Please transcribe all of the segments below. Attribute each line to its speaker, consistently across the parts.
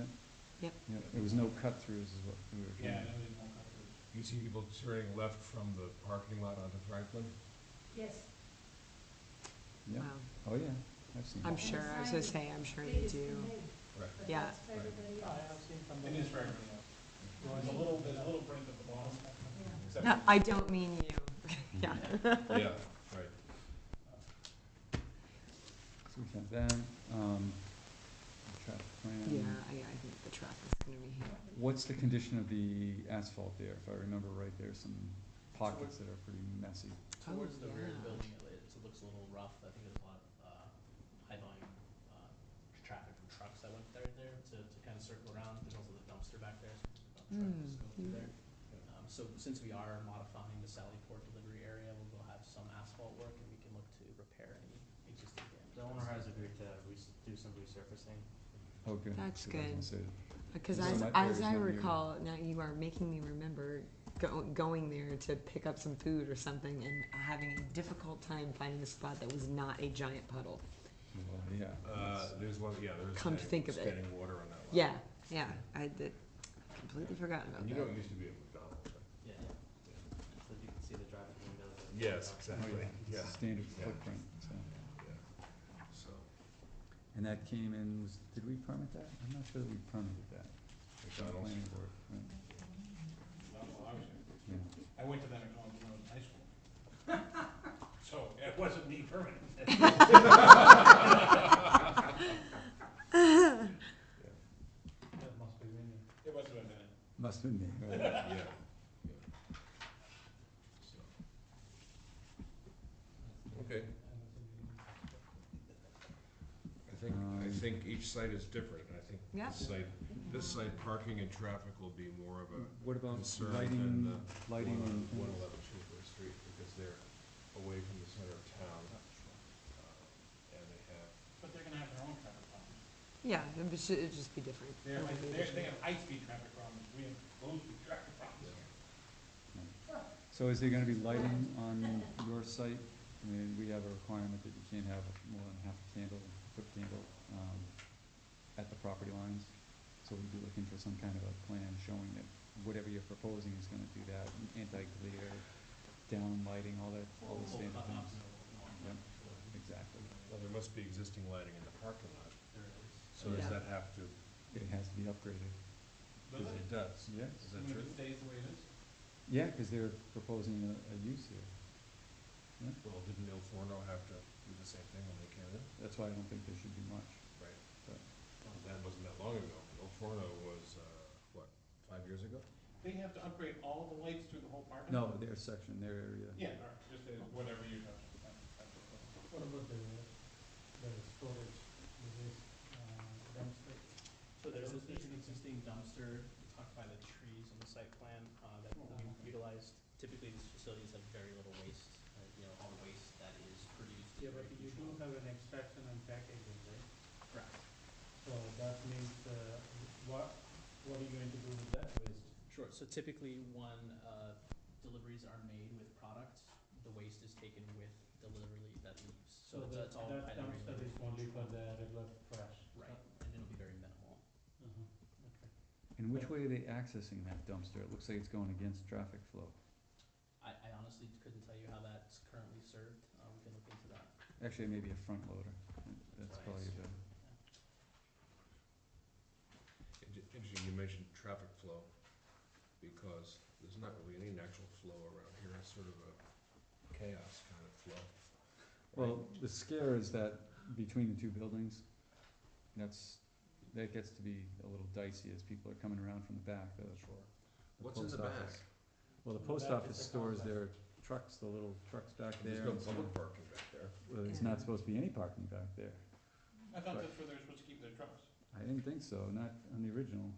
Speaker 1: Yep.
Speaker 2: You know, there was no cut-throughs is what we were trying
Speaker 3: Yeah, and
Speaker 2: to.
Speaker 3: then we won't have to-
Speaker 4: You see people turning left from the parking lot onto Franklin?
Speaker 5: Yes,
Speaker 2: Yeah,
Speaker 1: Wow.
Speaker 2: oh yeah, I've seen
Speaker 1: I'm
Speaker 2: it.
Speaker 1: sure, I was gonna say, I'm sure they
Speaker 5: it's for
Speaker 1: do.
Speaker 5: me,
Speaker 4: Right.
Speaker 5: but
Speaker 1: Yeah.
Speaker 5: that's for everybody
Speaker 3: I
Speaker 5: else.
Speaker 3: have seen from the. It is very good. There's a little, there's a little print at the bottom.
Speaker 5: Yeah.
Speaker 3: except
Speaker 1: No,
Speaker 3: for-
Speaker 1: I don't mean you. Yeah.
Speaker 4: Yeah, right.
Speaker 2: So we have that, um, the traffic plan.
Speaker 1: Yeah, I, I think the traffic's gonna be here.
Speaker 2: What's the condition of the asphalt there? If I remember right, there's some pockets that are pretty messy.
Speaker 6: Towards the
Speaker 1: Oh,
Speaker 6: rear of the
Speaker 1: yeah.
Speaker 6: building, it, it looks a little rough, I think there's a lot of, uh, high volume, uh, traffic from trucks that went there, there, to, to kind of circle around, there's also the dumpster back there, so the dump truck
Speaker 1: Mm,
Speaker 6: just go through
Speaker 1: yeah.
Speaker 6: there. Um, so since we are modifying the Sallyport delivery area, we'll go have some asphalt work and we can look to repair any existing damage.
Speaker 7: The owner has agreed to res- do some resurfacing.
Speaker 2: Oh, good.
Speaker 1: That's
Speaker 2: So I was gonna
Speaker 1: good.
Speaker 2: say that.
Speaker 1: Because
Speaker 2: So
Speaker 1: as,
Speaker 2: that
Speaker 1: as
Speaker 2: area's
Speaker 1: I
Speaker 2: not new.
Speaker 1: recall, now you are making me remember go, going there to pick up some food or something and having a difficult time finding a spot that was not a giant puddle.
Speaker 2: Well, Yeah.
Speaker 4: Uh,
Speaker 2: that's-
Speaker 4: there's one, yeah, there's.
Speaker 1: Come to
Speaker 4: a-
Speaker 1: think of it.
Speaker 4: Standing water on that lot.
Speaker 1: Yeah, yeah, I did, completely forgotten about
Speaker 4: And you
Speaker 1: that.
Speaker 4: know, it used to be a McDonald's, right?
Speaker 7: Yeah, so you can see the driving windows. of-
Speaker 4: Yes,
Speaker 2: oh,
Speaker 4: exactly,
Speaker 2: It's
Speaker 4: yeah,
Speaker 2: a standard
Speaker 4: Yeah.
Speaker 2: footprint, so.
Speaker 4: yeah. So,
Speaker 2: And that came in, was, did we permit that? I'm not sure that we permitted that. The
Speaker 4: McDonald's.
Speaker 2: planning board, right,
Speaker 3: Not while I was in.
Speaker 2: yeah.
Speaker 3: I went to that McDonald's when I was in high school. So it wasn't me permanent. That must be in it. It must have been in it.
Speaker 2: Must've been me, right?
Speaker 4: yeah, yeah. So. Okay, I think, I
Speaker 2: Um,
Speaker 4: think each site is different, and I think
Speaker 1: Yeah.
Speaker 4: this site, this site parking and traffic will be more of a
Speaker 2: What about
Speaker 4: concern uh, than
Speaker 2: lighting,
Speaker 4: the
Speaker 2: lighting and
Speaker 4: one
Speaker 2: things?
Speaker 4: eleven Schuylkill Street, because they're away from the center of town, uh, and they have
Speaker 3: But they're gonna have their own traffic problems.
Speaker 1: Yeah, it would ju- it'd just be different. It
Speaker 3: They're,
Speaker 1: would be
Speaker 3: they're, they
Speaker 1: different.
Speaker 3: have high-speed traffic problems, we have low-speed traffic problems.
Speaker 2: So is there gonna be lighting on your site? I mean, we have a requirement that you can't have more than half a candle, foot candle, um, at the property lines. So we'd be looking for some kind of a plan showing that whatever you're proposing is gonna do that, anti-glare, down lighting, all that, all the
Speaker 6: Full
Speaker 2: standard
Speaker 6: cut-offs
Speaker 2: things.
Speaker 6: and all that.
Speaker 2: Yep, exactly.
Speaker 4: Well, there must be existing lighting in the parking lot,
Speaker 6: There is.
Speaker 4: so does
Speaker 1: Yeah.
Speaker 4: that have to,
Speaker 2: It has to be upgraded.
Speaker 3: Does
Speaker 4: because
Speaker 3: it?
Speaker 4: it does,
Speaker 2: Yes.
Speaker 4: is that
Speaker 3: I mean,
Speaker 4: true?
Speaker 3: if it stays the way it is?
Speaker 2: Yeah, cause they're proposing a, a use here.
Speaker 4: Well, didn't Il Forno have to do the same thing when they came in?
Speaker 2: That's why I don't think there should be much,
Speaker 4: Right.
Speaker 2: but.
Speaker 4: That wasn't that long ago, Il Forno was, uh, what, five years ago?
Speaker 3: They have to upgrade all the lights through the whole parking
Speaker 2: No,
Speaker 3: lot?
Speaker 2: their section, their area.
Speaker 3: Yeah, or just uh, whatever you have. What about the, the storage, this, uh, dumpster?
Speaker 6: So there's, a- there's an existing dumpster tucked by the trees on the site plan, uh, that will be utilized. Typically, these facilities have very little waste, uh, you know, all the waste that is produced. is
Speaker 7: Yeah, but
Speaker 6: very
Speaker 7: you do
Speaker 6: controlled.
Speaker 7: have an extraction and packaging, right?
Speaker 6: Correct.
Speaker 7: So that means, uh, what, what are you going to do with that waste?
Speaker 6: Sure, so typically, when, uh, deliveries are made with products, the waste is taken with the delivery that leaves,
Speaker 7: So
Speaker 6: so it's,
Speaker 7: that,
Speaker 6: it's all
Speaker 7: that
Speaker 6: highly
Speaker 7: dumpster
Speaker 6: regulated.
Speaker 7: is only for the regular trash.
Speaker 6: Right, and it'll be very minimal.
Speaker 7: Mhm.
Speaker 2: And which way are they accessing that dumpster? It looks like it's going against traffic flow.
Speaker 6: I, I honestly couldn't tell you how that's currently served, uh, we can look into that.
Speaker 2: Actually, maybe a front loader. That's
Speaker 6: Right.
Speaker 2: probably better.
Speaker 4: Inter- Interesting, you mentioned traffic flow, because there's not really any natural flow around here, it's sort of a chaos kind of flow.
Speaker 2: Well, the scare is that between the two buildings, that's, that gets to be a little dicey as people are coming around from the back, the. the
Speaker 4: What's in the
Speaker 2: post
Speaker 4: back?
Speaker 2: office. Well, the
Speaker 7: The
Speaker 2: post
Speaker 7: back
Speaker 2: office
Speaker 7: is the
Speaker 2: stores
Speaker 7: complex.
Speaker 2: their trucks, the little trucks back
Speaker 4: There's
Speaker 2: there.
Speaker 4: no
Speaker 2: and so-
Speaker 4: public parking back there.
Speaker 2: Well, there's
Speaker 1: Yeah.
Speaker 2: not supposed to be any parking back there.
Speaker 3: I thought
Speaker 2: Right.
Speaker 3: that's where they're supposed to keep their trucks.
Speaker 2: I didn't think so, not on the original.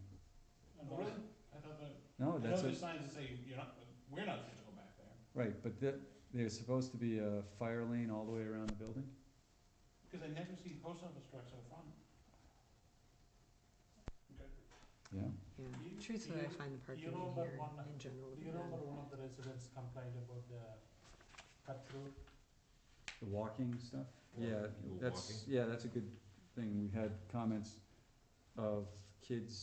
Speaker 3: Oh, really? I thought that,
Speaker 2: No,
Speaker 3: I know
Speaker 2: Oh, that's a.
Speaker 3: there's signs that say, you're not, we're not supposed to go back there,
Speaker 2: Right, but that, there's supposed to be a fire lane all the way around the building?
Speaker 3: because I never see post office trucks in front. Okay.
Speaker 2: Yeah.
Speaker 1: Yeah.
Speaker 7: You-
Speaker 1: Truthfully, I
Speaker 7: you-
Speaker 1: find the parking
Speaker 7: you know
Speaker 1: here
Speaker 7: about one-
Speaker 1: in general. to
Speaker 7: Do
Speaker 1: be
Speaker 7: you remember
Speaker 1: bad.
Speaker 7: one of the residents complained about the cut through?
Speaker 2: The walking stuff?
Speaker 4: Walking,
Speaker 2: Yeah,
Speaker 4: people
Speaker 2: that's, yeah, that's a good thing. We had comments of kids